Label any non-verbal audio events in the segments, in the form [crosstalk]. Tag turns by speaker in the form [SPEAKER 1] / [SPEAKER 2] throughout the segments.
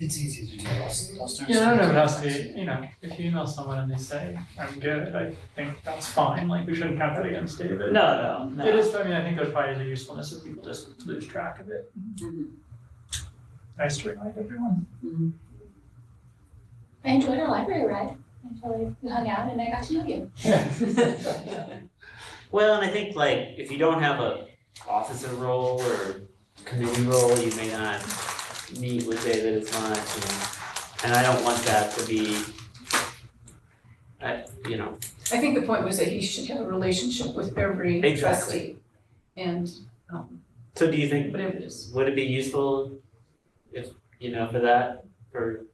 [SPEAKER 1] It's easy to do, I'll, I'll start.
[SPEAKER 2] Yeah, I don't know, it has to be, you know, if you email someone and they say, I'm good, I think that's fine, like, we shouldn't count that against David.
[SPEAKER 3] No, no,
[SPEAKER 2] It
[SPEAKER 3] no.
[SPEAKER 2] is, I mean, I think there's probably the usefulness if people just lose track of it.
[SPEAKER 3] Mm-hmm.
[SPEAKER 2] Nice to remind everyone.
[SPEAKER 4] I enjoyed our library ride until we hung out and I got to know you.
[SPEAKER 3] Well, and I think like if you don't have a officer role or committee role, you may not meet with David as much and and I don't want that to be I, you know,
[SPEAKER 5] I think the point was that he should have a relationship with every
[SPEAKER 3] Exactly.
[SPEAKER 5] trustee. And, um,
[SPEAKER 3] so do you think
[SPEAKER 5] whatever it is.
[SPEAKER 3] would it be useful if, you know, for that, for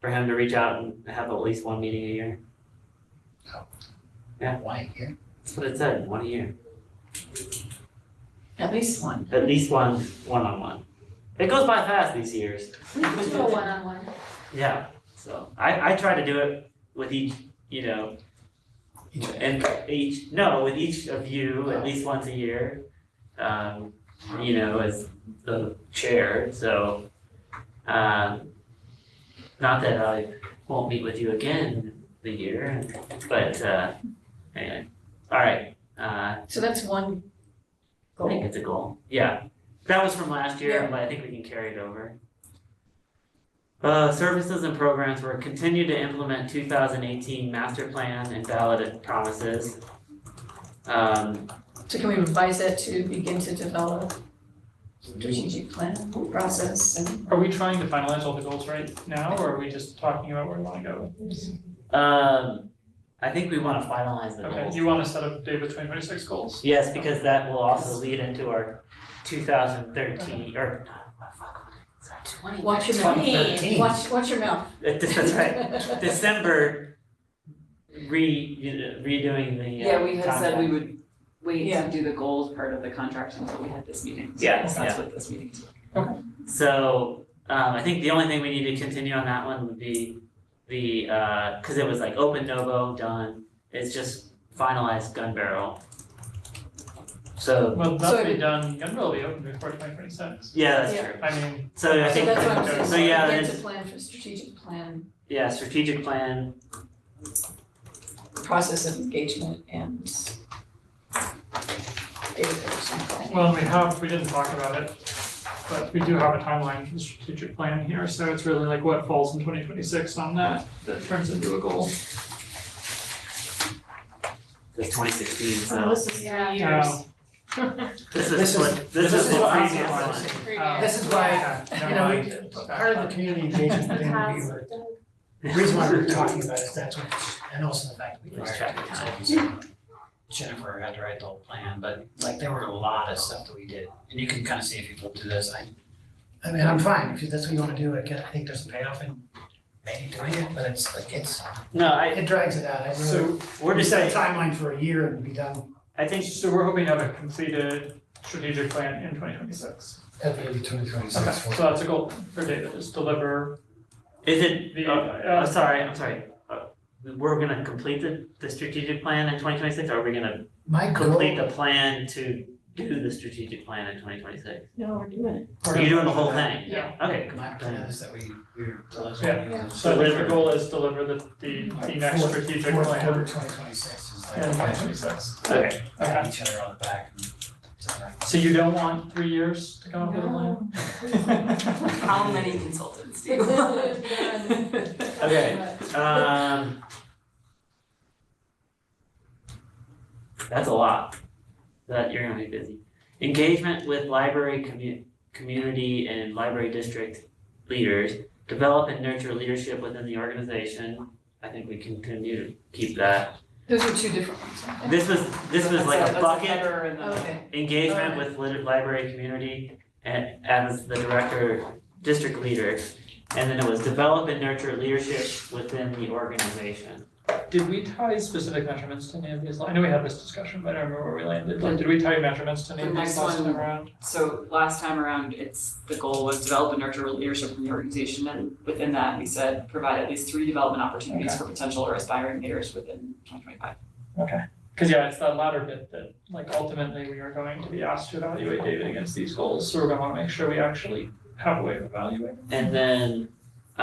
[SPEAKER 3] for him to reach out and have at least one meeting a year?
[SPEAKER 1] Why here?
[SPEAKER 3] That's what it said, one a year,
[SPEAKER 5] At least one.
[SPEAKER 3] at least one one on one. It goes by fast these years.
[SPEAKER 4] We could do a one-on-one.
[SPEAKER 3] Yeah, so I I try to do it with each, you know,
[SPEAKER 1] Each-
[SPEAKER 3] and each, no, with each of you at least once a year. Um, you know, as the chair, so um not that I won't meet with you again the year, but uh anyway, all right. Uh
[SPEAKER 5] So that's one
[SPEAKER 3] I think
[SPEAKER 5] goal.
[SPEAKER 3] it's a goal, yeah. That was from last year, but I think we can carry it over. Uh, services and programs were continue to implement two thousand eighteen master plan and ballot promises. Um,
[SPEAKER 5] So can we revise that to begin to develop strategic plan process and
[SPEAKER 2] Are we trying to finalize all the goals right now, or are we just talking about where we wanna go?
[SPEAKER 3] um, I think we wanna finalize the
[SPEAKER 2] Okay,
[SPEAKER 3] goals.
[SPEAKER 2] you wanna set up David twenty twenty six goals?
[SPEAKER 3] Yes, because that will also lead into our two thousand thirteen, or, no, fuck,
[SPEAKER 4] Twenty.
[SPEAKER 5] watch your mouth.
[SPEAKER 4] Twenty.
[SPEAKER 1] Thirteen.
[SPEAKER 5] Watch, watch your mouth.
[SPEAKER 3] that's right, [laughs] December, re, redoing the uh,
[SPEAKER 6] Yeah, we had said we
[SPEAKER 3] contract.
[SPEAKER 6] would wait
[SPEAKER 5] [laughs] Yeah.
[SPEAKER 6] to do the goals part of the contract until we had this meeting. So
[SPEAKER 3] Yeah,
[SPEAKER 6] That's
[SPEAKER 3] yeah.
[SPEAKER 6] what this meeting is.
[SPEAKER 3] So, um, I think the only thing we need to continue on that one would be the, uh, cause it was like open Novo, done, it's just finalized gun barrel. So,
[SPEAKER 2] Well, that'll
[SPEAKER 5] So-
[SPEAKER 2] be done, gun will be open before twenty twenty six.
[SPEAKER 3] yeah, that's true,
[SPEAKER 2] I mean,
[SPEAKER 3] so I
[SPEAKER 5] So
[SPEAKER 3] think,
[SPEAKER 5] that's what I'm saying.
[SPEAKER 3] so yeah,
[SPEAKER 5] begin
[SPEAKER 3] it's,
[SPEAKER 5] to plan for strategic plan,
[SPEAKER 3] yeah, strategic plan,
[SPEAKER 5] process of engagement and data collection planning.
[SPEAKER 2] well, we have, we didn't talk about it, but we do have a timeline for the strategic plan here, so it's really like what falls in twenty twenty six on that, that turns into a goal.
[SPEAKER 3] the twenty sixteen, so,
[SPEAKER 5] this is
[SPEAKER 4] Yeah.
[SPEAKER 2] Um,
[SPEAKER 3] this
[SPEAKER 1] This
[SPEAKER 3] is
[SPEAKER 1] is-
[SPEAKER 3] what, this
[SPEAKER 1] this
[SPEAKER 3] is
[SPEAKER 1] is
[SPEAKER 3] what
[SPEAKER 1] what I
[SPEAKER 3] previous
[SPEAKER 1] wanted to
[SPEAKER 3] one.
[SPEAKER 1] say.
[SPEAKER 5] Oh.
[SPEAKER 2] um,
[SPEAKER 1] This is why,
[SPEAKER 2] yeah, never
[SPEAKER 1] you know,
[SPEAKER 2] mind.
[SPEAKER 1] we- part of the community engagement thing would be,
[SPEAKER 4] Has done.
[SPEAKER 1] the reason why we're talking about it is that's what, and also the fact that we
[SPEAKER 3] Let's
[SPEAKER 1] hired
[SPEAKER 3] check the
[SPEAKER 1] consultants. Jennifer had to write the whole plan, but like there were a lot of stuff that we did, and you can kind of see if people do this, I, I mean, I'm fine, if that's what you want to do, I can, I think there's a payoff in maybe doing it, but it's like, it's,
[SPEAKER 3] No, I,
[SPEAKER 1] it drags it out, I really,
[SPEAKER 2] So,
[SPEAKER 3] we're
[SPEAKER 1] we
[SPEAKER 3] just
[SPEAKER 1] set a
[SPEAKER 3] saying,
[SPEAKER 1] timeline for a year and be done
[SPEAKER 3] I think,
[SPEAKER 2] so we're hoping to have a completed strategic plan in twenty twenty six.
[SPEAKER 1] at the end of twenty twenty
[SPEAKER 2] Okay, so that's a goal for David, is deliver
[SPEAKER 3] is it,
[SPEAKER 2] the,
[SPEAKER 3] oh,
[SPEAKER 2] uh,
[SPEAKER 3] I'm sorry, I'm sorry. Uh, We're gonna complete the, the strategic plan in twenty twenty-six, or are we gonna
[SPEAKER 1] My goal.
[SPEAKER 3] complete the plan to do the strategic plan in twenty twenty-six?
[SPEAKER 5] No, we're doing it.
[SPEAKER 3] You're doing the whole thing?
[SPEAKER 2] Yeah.
[SPEAKER 3] Okay,
[SPEAKER 1] My plan is that we, we're delivering.
[SPEAKER 2] Yeah. So I think the goal is deliver the, the, the next
[SPEAKER 1] Fourth-
[SPEAKER 2] strategic
[SPEAKER 1] Fourth quarter
[SPEAKER 2] plan
[SPEAKER 1] twenty twenty-six is
[SPEAKER 2] in twenty
[SPEAKER 1] like,
[SPEAKER 2] twenty six.
[SPEAKER 3] okay,
[SPEAKER 1] pat each other on the back and.
[SPEAKER 2] So you don't want three years to come up with a plan? [laughs]
[SPEAKER 6] How many consultants
[SPEAKER 5] [laughs]
[SPEAKER 6] do you want?
[SPEAKER 5] Done.
[SPEAKER 3] Okay. um. That's a lot, that you're gonna be busy. Engagement with library commu- community and library district leaders, develop and nurture leadership within the organization. I think we can continue to keep that.
[SPEAKER 5] Those are two different ones. aren't
[SPEAKER 3] This was, this was like
[SPEAKER 6] That's
[SPEAKER 3] a bucket
[SPEAKER 6] That's a header and
[SPEAKER 5] they?
[SPEAKER 6] then a-
[SPEAKER 5] Okay.
[SPEAKER 3] engagement with lit- library community and as the director, district leader. And then it was develop and nurture leadership within the organization.
[SPEAKER 2] Did we tie specific measurements to any of these? I know we had this discussion, but I don't remember where we landed. Like, did we tie measurements to any of
[SPEAKER 6] The
[SPEAKER 2] these
[SPEAKER 6] next
[SPEAKER 2] last time
[SPEAKER 6] one-
[SPEAKER 2] around?
[SPEAKER 6] So last time around, it's, the goal was develop and nurture leadership in the organization, and within that, we said, provide at least three development opportunities for potential or aspiring leaders within twenty twenty-five.
[SPEAKER 2] Okay. Cause yeah, it's that latter bit that like ultimately we are going to be asked to evaluate David against these goals, so we're gonna wanna make sure we actually have a way of evaluating.
[SPEAKER 3] And then